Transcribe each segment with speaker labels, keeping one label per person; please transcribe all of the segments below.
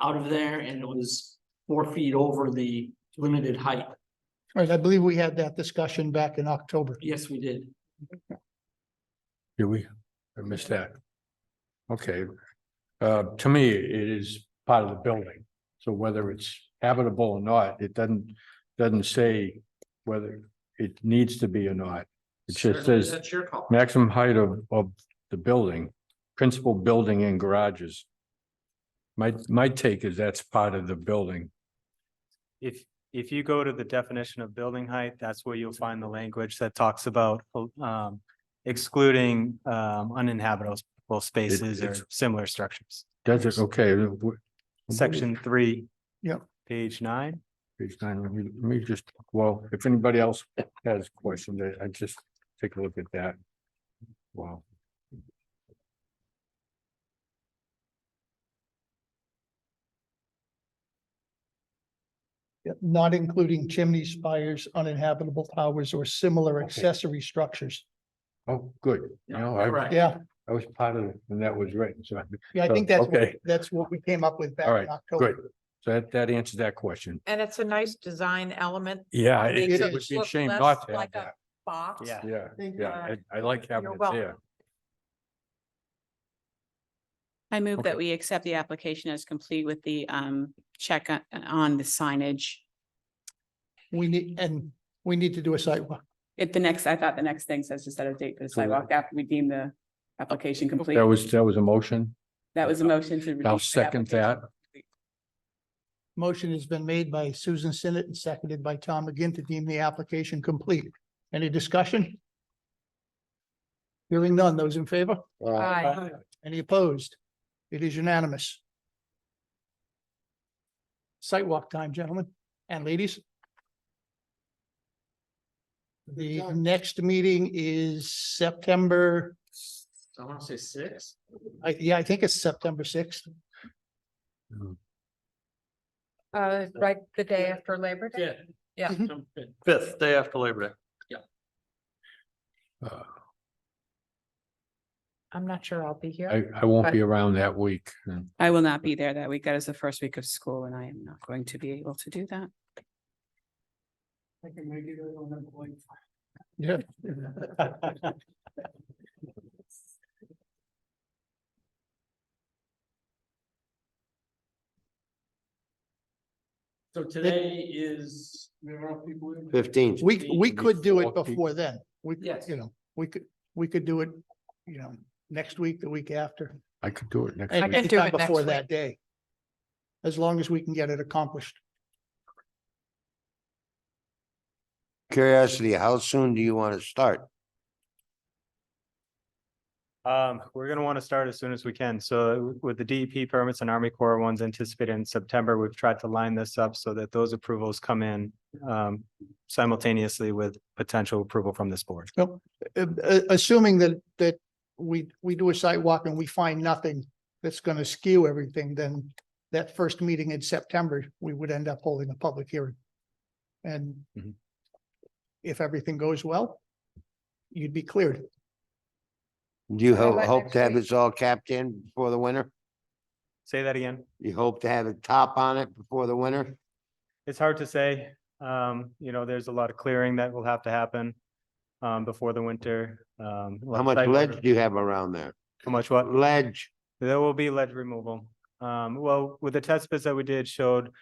Speaker 1: out of there and it was four feet over the limited height.
Speaker 2: Right, I believe we had that discussion back in October.
Speaker 1: Yes, we did.
Speaker 3: Do we? I missed that. Okay. Uh, to me, it is part of the building. So whether it's habitable or not, it doesn't, doesn't say whether it needs to be or not. It just
Speaker 4: Certainly,
Speaker 3: says
Speaker 4: That's your call.
Speaker 3: maximum height of, of the building, principal building and garages. My, my take is that's part of the building.
Speaker 5: If, if you go to the definition of building height, that's where you'll find the language that talks about um, excluding um, uninhabitable spaces or
Speaker 3: it's-
Speaker 5: similar structures.
Speaker 3: Does it, okay. w-
Speaker 5: Section three.
Speaker 2: Yep.
Speaker 5: Page nine.
Speaker 3: Page nine, let me, let me just, well, if anybody else has questions, I, I just take a look at that. Wow.
Speaker 2: Yep, Not including chimneys, spires, uninhabitable towers or similar
Speaker 3: Okay.
Speaker 2: accessory structures.
Speaker 3: Oh, good. You know, I,
Speaker 1: Correct.
Speaker 2: Yeah,
Speaker 3: I was part of, it when that was written, so,
Speaker 2: yeah, I
Speaker 3: So,
Speaker 2: think that's, what-
Speaker 3: Oh, okay.
Speaker 2: that's what we came up with
Speaker 3: All
Speaker 2: back
Speaker 3: right,
Speaker 2: in October.
Speaker 3: good. So that, that answers that question.
Speaker 6: And it's a nice design element.
Speaker 3: Yeah,
Speaker 6: Makes
Speaker 3: it
Speaker 2: it
Speaker 3: it would be a
Speaker 6: look
Speaker 3: shame
Speaker 6: less
Speaker 3: not to have
Speaker 6: like a
Speaker 3: that.
Speaker 6: Box.
Speaker 5: Yeah.
Speaker 3: Yeah,
Speaker 2: Thank you.
Speaker 3: yeah, I, I like having it
Speaker 6: You're
Speaker 3: there.
Speaker 7: I move
Speaker 3: Okay.
Speaker 7: that we accept the application as complete with the um check on- on the signage.
Speaker 2: We need, and we need to do a sidewalk.
Speaker 7: If the next, I thought the next thing says to set a date for the
Speaker 3: So that-
Speaker 7: sidewalk after we deem the application complete.
Speaker 3: That was, that was a motion.
Speaker 7: That was a motion to.
Speaker 3: I'll
Speaker 7: release the
Speaker 3: second that.
Speaker 7: application.
Speaker 2: Motion has been made by Susan Sinnet and seconded by Tom McGinn to deem the application complete. Any discussion? Hearing none. Those in favor?
Speaker 6: Aye.
Speaker 2: Any opposed? It is unanimous. Sidewalk time, gentlemen and ladies. The next meeting is September,
Speaker 1: I want to say six.
Speaker 2: I, yeah, I think it's September sixth.
Speaker 6: Uh, right, the day after Labor Day.
Speaker 1: Yeah.
Speaker 6: Yeah.
Speaker 4: Fifth, day after Labor Day.
Speaker 3: Uh,
Speaker 6: I'm not sure I'll be here.
Speaker 3: I, I won't be around that week. and
Speaker 7: I will not be there that week. That is the first week of school and I am not going to be able to do that.
Speaker 2: I can make it on that point. Yeah.
Speaker 1: So today is.
Speaker 4: Fifteenth.
Speaker 2: We, we could do it
Speaker 3: Before people-
Speaker 2: before then. We,
Speaker 1: Yes.
Speaker 2: you know, we could, we could do it, you know, next week, the week after.
Speaker 3: I could do it next
Speaker 2: and
Speaker 6: I
Speaker 3: week.
Speaker 6: can do
Speaker 2: anytime
Speaker 6: it next
Speaker 2: Before
Speaker 6: week.
Speaker 2: that day. As long as we can get it accomplished.
Speaker 8: Curiosity, how soon do you want to start?
Speaker 5: Um, we're gonna want to start as soon as we can. So with the DEP permits and Army Corps ones anticipated in September, we've tried to line this up so that those approvals come in um, simultaneously with potential approval from this board.
Speaker 2: Uh, uh, Assuming that, that we, we do a sidewalk and we find nothing that's going to skew everything, then that first meeting in September, we would end up holding a public hearing. And
Speaker 3: Mhm.
Speaker 2: if everything goes well, you'd be cleared.
Speaker 8: Do you
Speaker 6: How
Speaker 8: ho-
Speaker 6: about
Speaker 8: hope
Speaker 6: next
Speaker 8: to have
Speaker 6: week?
Speaker 8: this all capped in before the winter?
Speaker 5: Say that again.
Speaker 8: You hope to have a top on it before the winter?
Speaker 5: It's hard to say. Um, you know, there's a lot of clearing that will have to happen um, before the winter. Um, a lot
Speaker 8: How
Speaker 5: of
Speaker 8: much
Speaker 5: site
Speaker 8: ledge
Speaker 5: work.
Speaker 8: do you have around there?
Speaker 5: How much what?
Speaker 8: Ledge,
Speaker 5: There will be ledge removal. Um, well, with the test bits that we did showed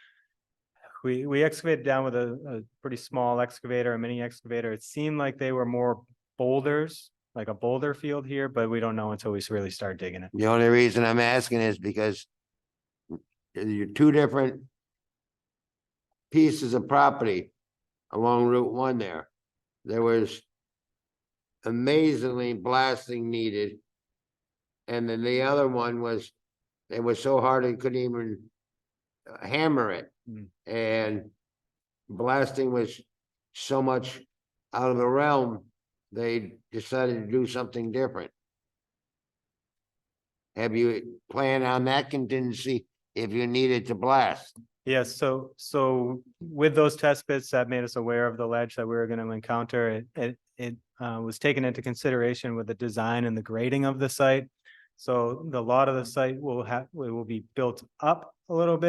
Speaker 5: we, we excavated down with a, a pretty small excavator, a mini excavator. It seemed like they were more boulders, like a boulder field here, but we don't know until we really start digging it.
Speaker 8: the only reason I'm asking is because you're two different pieces of property along Route One there. There was amazingly blasting needed. And then the other one was, it was so hard it couldn't even uh, hammer it.
Speaker 5: Mm.
Speaker 8: And blasting was so much out of the realm, they decided to do something different. Have you planned on that contingency if you needed to blast?
Speaker 5: Yes, so, so with those test bits that made us aware of the ledge that we were gonna encounter, it, it, it uh, was taken into consideration with the design and the grading of the site. So the lot of the site will have, will be built up a little bit.